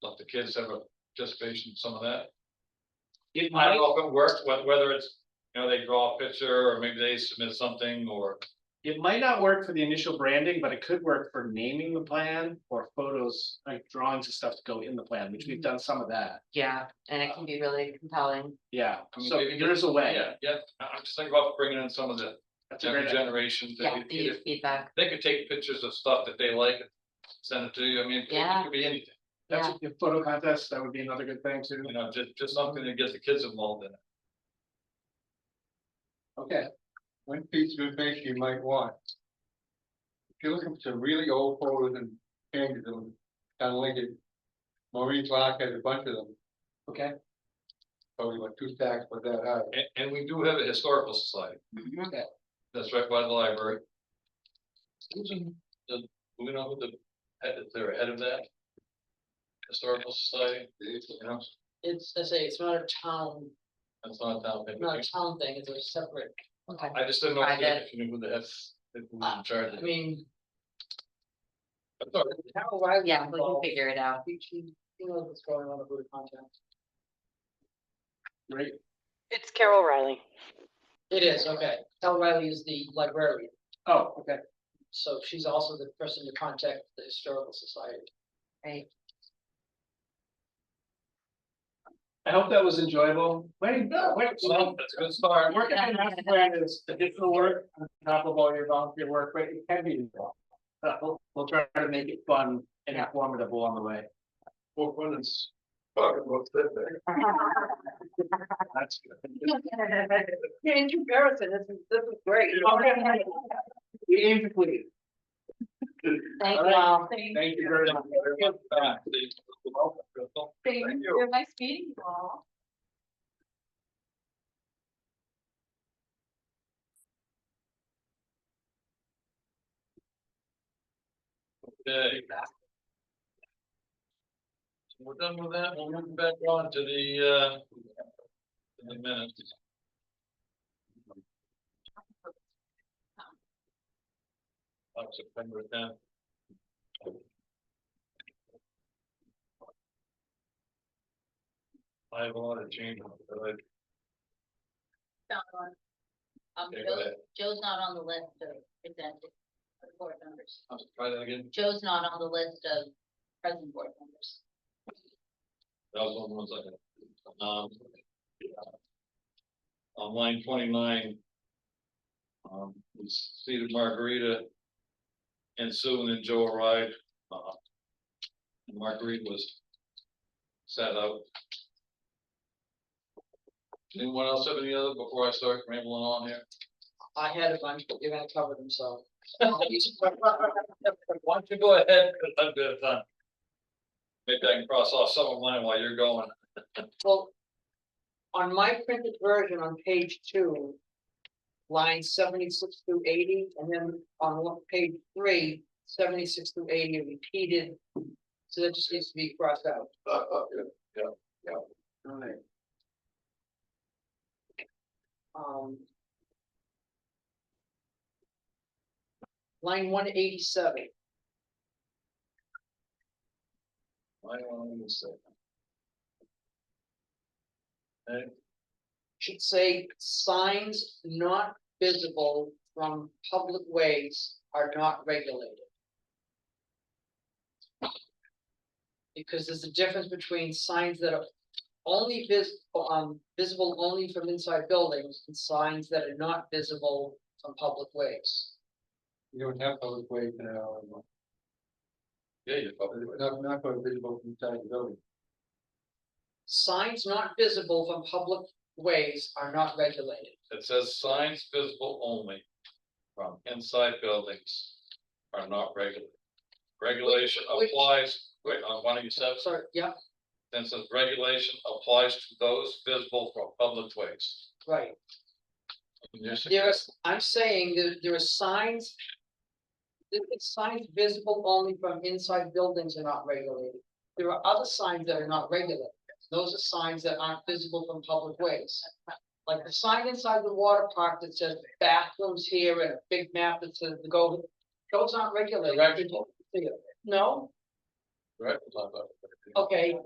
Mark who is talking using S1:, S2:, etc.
S1: the kids have a participation in some of that.
S2: It
S1: I don't
S2: might,
S1: know if it works, wh- whether it's, you know, they draw a picture or maybe they submit something or,
S2: it might not work for the initial branding, but it could work for naming the plan or photos, like drawings and stuff to go in the plan, which we've done some of that.
S3: Yeah, and it can be really compelling.
S2: Yeah,
S1: I mean,
S2: so
S1: maybe-
S2: there's a way.
S1: yeah, yeah, I- I'm just thinking about bringing in some of the
S2: That's a
S1: younger
S2: great idea.
S1: generations. that
S3: Yeah,
S1: could
S3: they
S1: either-
S3: use feedback.
S1: They could take pictures of stuff that they like, and send it to you, I mean, it could- it
S3: Yeah.
S1: could be anything,
S2: That's a a photo contest, that would be another good thing too.
S1: you know, just, just something to get the kids involved in. it.
S2: Okay,
S4: One piece of information you might want. If you're looking for some really old photos and changes them, kind of Lincoln. Maureen Clark has a bunch of them,
S2: okay. Oh,
S4: probably like two stacks with that high.
S1: And, and we do have a historical society, that's right by the library.
S5: Mm-hmm.
S1: Susan, the, do we know who the, head, they're head of that? Historical society, you know,
S5: It's, I say, it's not a town,
S1: that's not a town.
S5: not a town thing, it's a separate,
S3: Okay,
S1: I just didn't know if you-
S3: Private. Uh.
S1: if you knew who the F, who was in charge
S5: I
S1: of it.
S5: mean.
S1: I thought it
S5: how I was
S3: yeah, we can
S5: involved,
S3: figure it out.
S5: we can- Who knows what's going on with the contact?
S2: Great,
S6: It's Carol Riley.
S5: It is, okay, Ellen Riley is the librarian,
S2: oh, okay,
S5: so she's also the person to contact the historical society.
S2: I hope that was enjoyable. Wait, no, wait,
S1: was-
S2: so
S1: Well, that's a good start.
S2: working on master plan is additional work on top of all your volunteer work, but it can be involved. Uh, we'll, we'll try to make it fun and informative along the way.
S1: Well, when it's talking about that,
S2: That's good.
S5: Yeah, in comparison, this is, this is great.
S2: We aim to please.
S3: Thank
S2: All
S3: you
S2: right.
S3: all.
S2: Thank you very much.
S1: uh, the- the- Thank you.
S6: Nice meeting you all.
S1: Okay. So We're done with that, we'll move back on to the, uh, to the minutes. Of September tenth. I have a lot of changes, but I,
S7: found one. Um,
S1: okay, go
S7: Joe,
S1: ahead,
S7: Joe's not on the list of presented board members.
S1: I'll try that again,
S7: Joe's not on the list of present board members.
S1: that was one was like, um. On line twenty-nine. Um, we see that Margarita. And Sue and Joe arrived, uh. and Marguerite was. Sat out. Anyone else have any other before I start rambling on here?
S5: I had a bunch, but you're gonna cover them, so.
S1: Why don't you go ahead, because I'm good at time. Maybe I can cross off some of mine while you're going.
S5: Well, on my printed version on page two, line seventy-six through eighty, and then on lo- page three, 76 through eighty are repeated. So that just needs to be crossed out.
S1: Uh, uh, yeah.
S2: All right.
S5: Um. Line one eighty-seven,
S1: Why don't you say?
S5: should say signs not visible from public ways are not regulated. Because there's a difference between signs that are only vis- um, visible only from inside buildings and signs that are not visible from public ways.
S4: You don't have those ways now, anymore.
S1: Yeah, you're probably right.
S4: It's not, not going visible from inside the building.
S5: Signs not visible from public ways are not regulated.
S1: It says signs visible only from inside buildings are not regulated. Regulation
S5: Which-
S1: applies, wait, uh, why don't you say,
S5: Sorry, yeah,
S1: then says regulation applies to those visible from public ways.
S5: right.
S1: And you're saying-
S5: There is, I'm saying that there are signs. There are signs visible only from inside buildings are not regulated. There are other signs that are not regulated. Those are signs that aren't visible from public ways. Like the sign inside the water park that says bathrooms here and a big map that says the go, those aren't regulated.
S1: Directional.
S5: No,
S1: Right, blah, blah, blah.
S5: okay,